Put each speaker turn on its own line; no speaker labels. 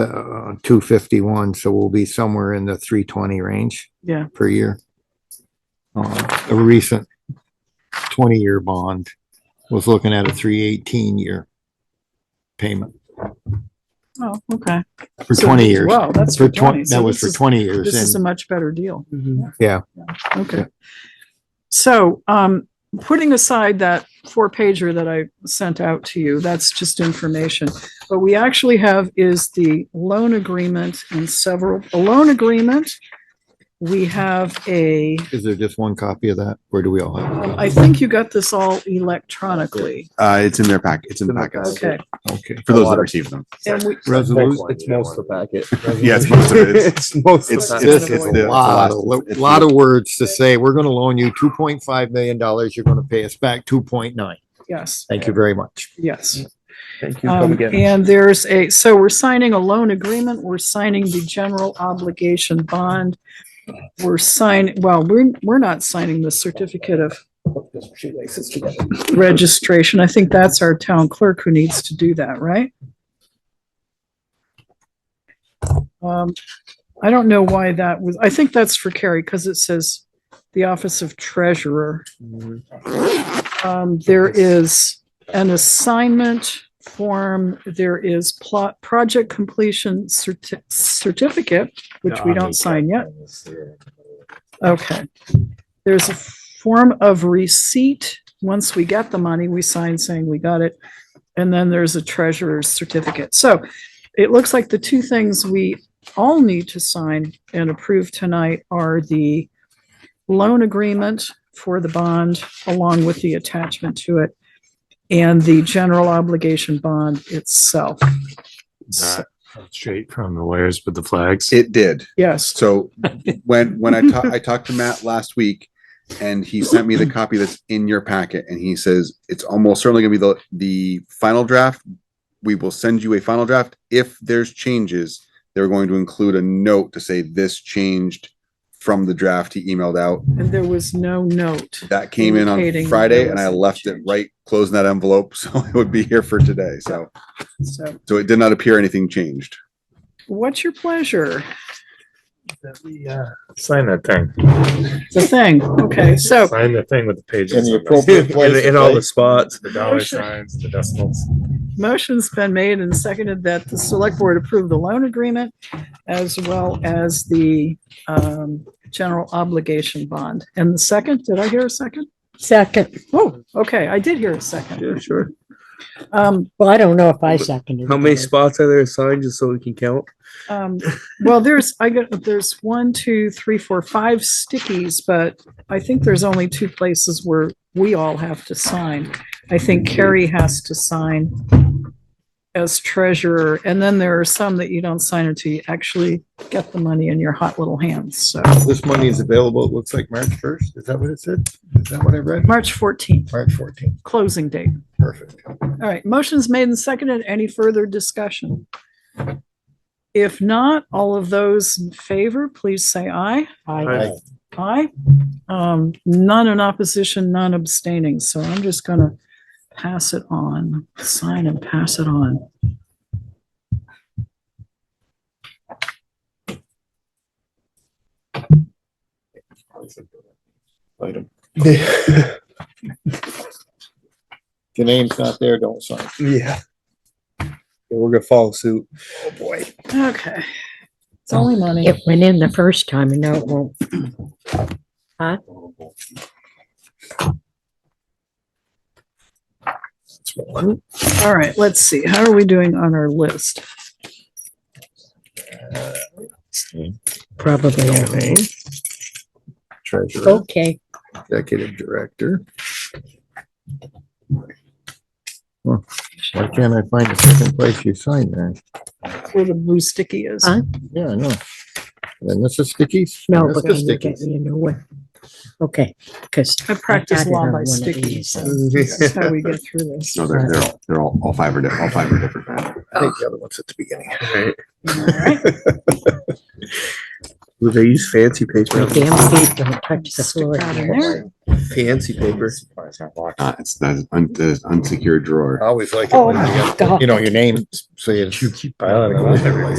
uh, two fifty-one, so we'll be somewhere in the three twenty range
Yeah.
per year. Uh, a recent twenty-year bond was looking at a three eighteen year payment
Oh, okay.
for
So-
twenty years.
Wow, that's
For
for twenty.
twenty,
So
that was
this
for
is-
twenty
This is
years
a
and
much better deal.
Yeah.
Okay. So, um, putting aside that four pager that I sent out to you, that's just information. What we actually have is the loan agreement and several, a loan agreement. We have a,
is there just one copy of that? Where do we all have?
I think you got this all electronically.
Uh, it's in their pack. It's in the
It's in the
packets
Okay.
it? Okay.
for
A
those
lot
that
of-
receive them.
And we,
Resolution.
It's most of the packet.
Yeah, it's most of it. It's-
It's most
It's,
of
not-
it.
This
it's,
is
it's
a
the
lot, a
the last-
lot of words to say, we're gonna loan you two point five million dollars, you're gonna pay us back two point nine.
yes,
Thank you very much.
yes.
Thank you. Come
Um,
again.
and there's a, so we're signing a loan agreement, we're signing the general obligation bond. We're signing, well, we're, we're not signing the certificate of registration. I think that's our town clerk who needs to do that, right? Um, I don't know why that was, I think that's for Carrie, because it says the Office of Treasurer. Um, there is an assignment form, there is plot, project completion certi- certificate, which we don't sign yet. Okay. There's a form of receipt. Once we get the money, we sign saying we got it. And then there's a treasurer's certificate. So it looks like the two things we all need to sign and approve tonight are the loan agreement for the bond along with the attachment to it and the general obligation bond itself. So-
Straight from the lawyers with the flags.
It did.
Yes,
So when when I ta- I talked to Matt last week, and he sent me the copy that's in your packet, and he says it's almost certainly going to be the the final draft. We will send you a final draft. If there's changes, they're going to include a note to say this changed from the draft he emailed out.
and there was no note.
That came in on
Indicating
Friday,
there
and I
was a
left it
change.
right closing that envelope, so it would be here for today. So
So
so it did not appear anything changed.
what's your pleasure?
Sign that thing.
The thing, okay, so
Sign the thing with the pages.
In the
on it.
appropriate place.
In in all the spots, the dollar
Motion.
signs, the decimals.
motion's been made and seconded that the select board approve the loan agreement as well as the um general obligation bond. And the second, did I hear a second?
Second.
Oh, okay, I did hear a second.
Yeah, sure.
Um,
Well, I don't know if I seconded.
How many
it.
spots are there assigned just so we can count?
um, well, there's, I got, there's one, two, three, four, five stickies, but I think there's only two places where we all have to sign. I think Carrie has to sign as treasurer, and then there are some that you don't sign until you actually get the money in your hot little hands, so.
This money is available, it looks like March first, is that what it said? Is that what I read?
March fourteenth,
March fourteenth,
closing date.
perfect.
All right, motion's made and seconded. Any further discussion? If not, all of those in favor, please say aye.
I-
Aye. Um, none in opposition, none abstaining, so I'm just gonna pass it on, sign and pass it on.
If your name's not there, don't sign.
Yeah. We're gonna follow suit. Oh, boy.
Okay. It's only money.
It went in the first time and now it won't.
All right, let's see, how are we doing on our list?
Probably.
Treasurer,
Okay.
Oh. executive director. Huh, Why can't I find the second place you signed there?
Where the blue sticky is.
Huh?
Yeah, I know. Then this is stickies?
No,
This
but
is
can you get
stickies.
me a new one? Okay, because.
I practice law by stickies. That's how we get through this.
No, they're they're all, they're all, all five are di- all five are different. Matt.
I think the other one's at the beginning.
Do they use fancy paper?
Damn feet don't touch the
Stick
floor.
that in
here.
there.
Fancy paper.
Uh, it's the un- the unsecured drawer.
I always like it
Oh,
when you
my
got,
God.
you know, your name, so you.
keep piling it on everywhere.